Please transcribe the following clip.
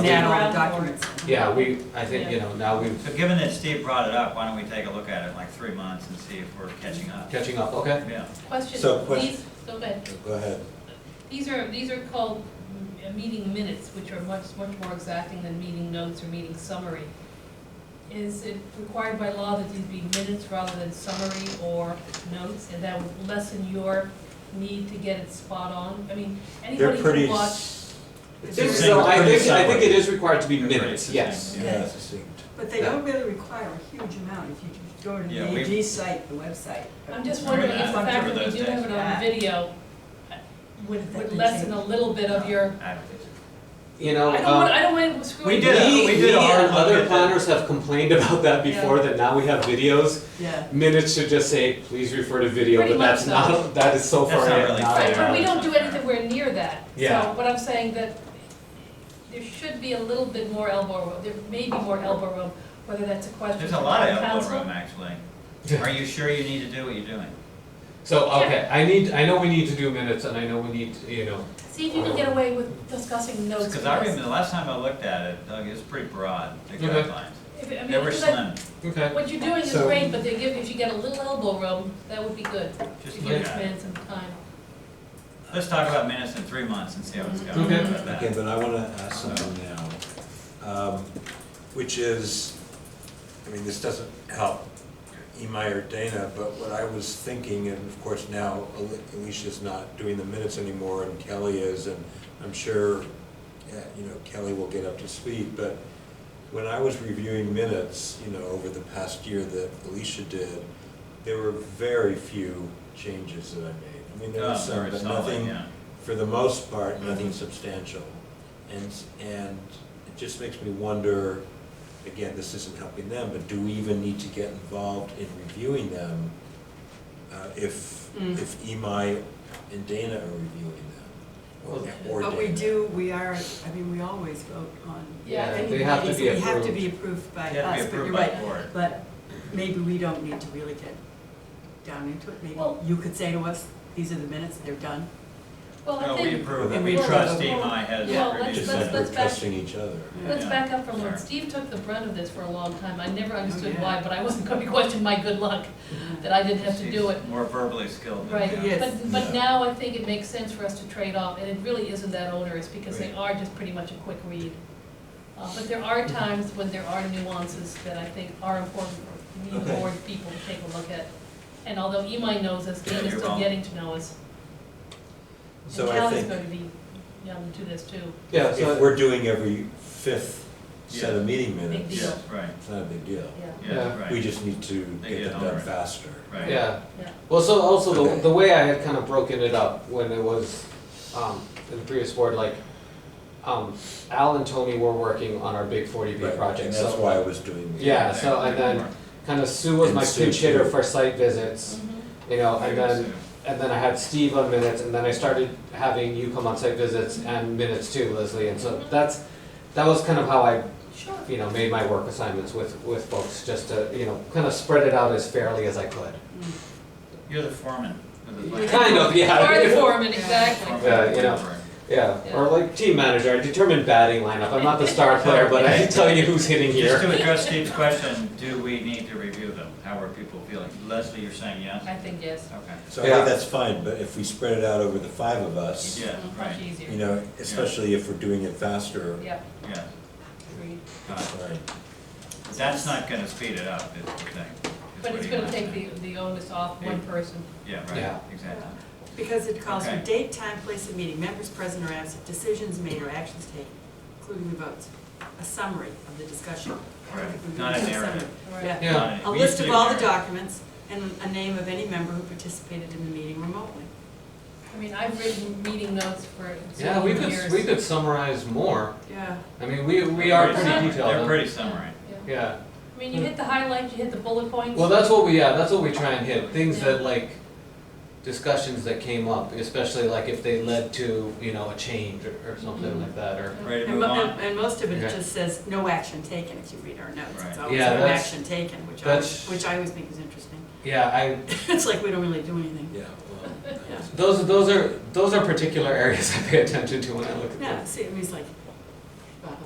we- Yeah, Yeah, no, no, I'm documents. Yeah, we, I think, you know, now we've So given that Steve brought it up, why don't we take a look at it in like three months and see if we're catching up? catching up, okay? Yeah. So, Question, question- these, go ahead. Go ahead. These are, these are called m- meeting minutes, which are much, much more exacting than meeting notes or meeting summary. Is it required by law that these be minutes rather than summary or notes? And that would lessen your need to get it spot on? I mean, They're anybody pretty. can watch. s- I It's think the so, I same think, I think it summary. is required to be They're pretty minutes, succinct, yes. Yeah, it's succinct. But they don't really require a huge amount if you just go to the Yeah, we- AG site, the website. I'm just wondering if the Remember fact that we those do have days. it on video uh, would, would lessen a little bit of your, I don't think so. You know, I don't want, um, I don't want to screw We it did a- up. we, we did we a hard and look at other that. planners have complained about that Yeah. before, that now we have videos. Yeah. Minutes should just say, please refer to video, Pretty but that's much so. not, that is so That's far not in, really not Right, there. but we don't do anything, we're near that. Yeah. So what I'm saying that there should be a little bit more elbow room, there may be more elbow room, whether that's a question. There's a lot of from elbow council. room, actually. Are you sure you need to do what you're doing? So, okay, I need, I know we need to do minutes and I know we need, you know, See if you can get away with discussing notes. Because I first. remember the last time I looked at it, Doug, it was pretty broad, the Okay. guidelines. If it- I mean, They were because I- slim, okay. What you're doing is So- great, but they give, if you get a little elbow room, that would be good, to just give look this at it. man some time. Let's talk about minutes in three months and see how it's going. Okay. How about that? Okay, but I wanna ask something now, um, which is, I mean, this doesn't help Imai or Dana, but what I was thinking, and of course now Ale- Alicia's not doing the minutes anymore and Kelly is, and I'm sure, yeah, you know, Kelly will get up to speed, but when I was reviewing minutes, you know, over the past year that Alicia did, there were very few changes that I made. I mean, there Oh, was some, very but solid, nothing, yeah. for the most part, nothing substantial. And, and it just makes me wonder, again, this isn't helping them, but do we even need to get involved in reviewing them uh, if, Mm. if Imai and Dana are reviewing them? or- or But we Dana? do, we are, I mean, we always vote on. Yeah, any they have to meetings. be We have to approved. be approved by You have to us, be but you're approved by right. the board. But maybe we don't need to really get down into it. Maybe Well- you could say to us, these are the minutes, they're done. Well, No, I we think, approve, And we we trust approve. EMI has Yeah, let's- reviewed Just let's- like it. we're let's back- trusting each other. let's Yeah. back up from Sorry. when Steve took the brunt of this for a long time, I Oh, never understood yeah. why, but I wasn't going to question my good luck, that I didn't have to do it. She's More verbally skilled than Right, we are. Yes. but, but Yeah. now I think it makes sense for us to trade off, and it really isn't that onerous, because they are just pretty much a quick read. Uh, but there are times when there are nuances that I think are important for new Okay. board people to take a look at. And although Imai knows us, Dana's You're still wrong. getting to know us, and So I Callie's think gonna be young to this too, Yeah, if so, we're doing every fifth set of meeting Big minutes, deal. Yes, right, it's not a big deal. yeah, Yeah. yeah, We right, just need to They get get them on done it. faster. right. yeah. yeah. Well, so also the, Okay. the way I had kind of broken it up when it was um, in the previous board, like um, Al and Tony were working on our big 40B Right, project. And that's so, why I was doing the. Yeah, so and then kind of Sue was And my Sue pinch hitter too. for site visits, Mhm. you know, and then and then I had Steve on minutes, and then I started having you come on site visits and minutes too, Leslie. And so Mhm. that's that was kind of how I Sure. you know made my work assignments with with folks, just to you know kind of spread it out as fairly as I could. You're the foreman of the. planning Kind of, yeah. Hard form it, Yeah. board. exactly. Yeah, you know. Yeah, or like team manager, I determine batting lineup. I'm not the star player, but I can tell you who's hitting Just here. to address Steve's question, do we need to review them? How are people feeling? Leslie, you're saying yes? I think yes, Okay. So I Yeah. think that's fine, but if we spread it out over the five of us, Yeah, much right, easier, you know, especially if we're doing it faster, yeah, yeah. agreed. got it. right? That's not gonna speed it up, is the thing. is But what it's he gonna wants take to- the, the onus off one person. Yeah, Yeah. right, exactly. Because it calls for Okay. date, time, place of meeting, members present or absent, decisions made or actions taken, including the votes, a summary of the discussion. I don't think we Right. Not a really need summary. narrative. Yeah. Yeah. Not any- A we list used to of do all the narrative. documents and a name of any member who participated in the meeting remotely. I mean, I've written meeting notes for Yeah, we several could, we years. could summarize more. Yeah. I mean, we, we are They're pretty pretty- detailed. They're huh? pretty summary. Yeah. Yeah, I mean, you hit the highlights, you hit the bullet points. well, that's what we, yeah, that's what we try and hit, things Yeah. that like, discussions that came up, especially like if they led to, you know, a change or, or something Mhm. like that, or, Ready to And move mo- on? And and most of it Okay. just says, no action taken, if you read our notes. Right. It's always Yeah, no that's- action taken, which I, that's- always- which I always think is interesting. yeah, I, It's like, we don't really do anything. Yeah, well, Yeah. those, those are, those are particular areas I pay attention to when I look at Yeah, them. see, it was like, blah, blah,